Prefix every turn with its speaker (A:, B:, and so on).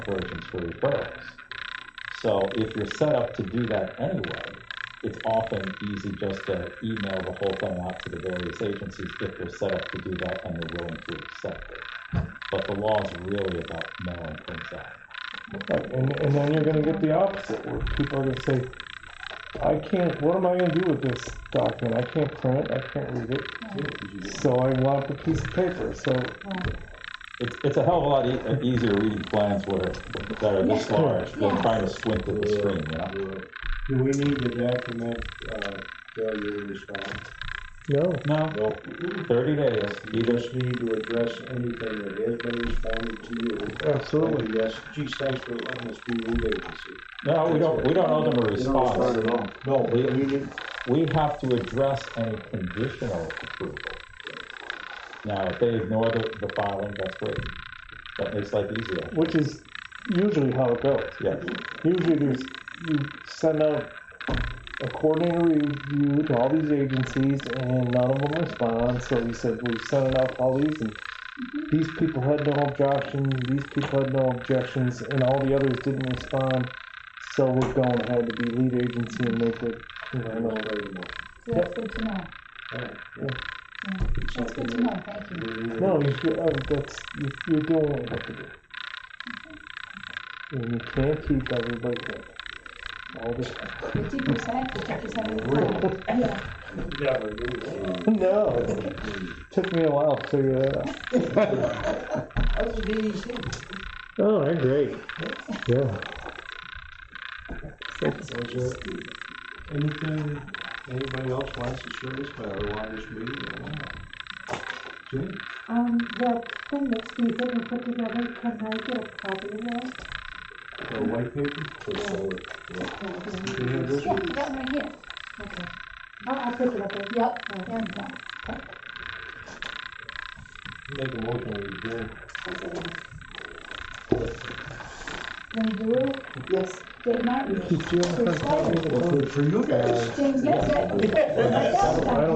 A: versions for referrals. So if you're set up to do that anyway, it's often easy just to email the whole thing out to the various agencies if they're set up to do that and they're willing to accept it. But the law is really about mailing things out.
B: Right, and, and then you're gonna get the opposite, where people are gonna say, I can't, what am I gonna do with this document? I can't print it, I can't read it. So I want the piece of paper, so,
A: It's, it's a hell of a lot e- easier reading plans where, that are this
C: Yeah.
A: large than
C: Yeah.
A: trying to squint at the screen, you know?
D: Do we need to document, uh, failure to respond?
B: no,
A: No,
D: No.
A: thirty days,
D: You
A: either,
D: just need to address anything that has been responded to you.
B: absolutely.
D: Like, Yes, geez, thanks for letting us be lead agency.
A: no, Oh, we don't, we don't owe them a response.
D: at all. No, we, we need,
A: we have to address any conditional approval. Now, if they ignore the, the filing, that's great. That makes life easier.
B: Which is usually how it goes.
A: Yes,
B: Usually there's, you send out a coordinator review to all these agencies and none of them respond, so we said, we sent it out to all these and these people had no objections, these people had no objections, and all the others didn't respond, so we're going ahead to be lead agency and make it, you
D: I
B: know, no.
D: know, I know.
C: So that's good to know.
D: Alright,
C: Yeah. That's good to know, thank you.
D: we need to-
B: No, you should, uh, that's, you- you're doing what you have to do. And you can't keep everybody happy. All the time.
C: Fifty percent, fifty percent of the time. Yeah.
D: Never do that.
B: No, it took me a while to figure that out.
D: How's the DEC?
E: Oh, they're great. Yeah.
D: Was there anything, anybody else wants to share this, but otherwise, this meeting, I don't know. Jim?
F: Um, the thing that Steve didn't put together, can I get a copy of that?
D: The white paper? Do you have this
C: Yeah,
D: one?
C: that one right here.
F: Okay. I'll, I'll pick Oh, it up there.
C: Yep, there you go.
D: Make a motion, we adjourn.
C: Then do it.
F: Yes.
C: Dave Martin. Chris Snyder,
D: Well, good for you guys.
C: James Gibson. Like that.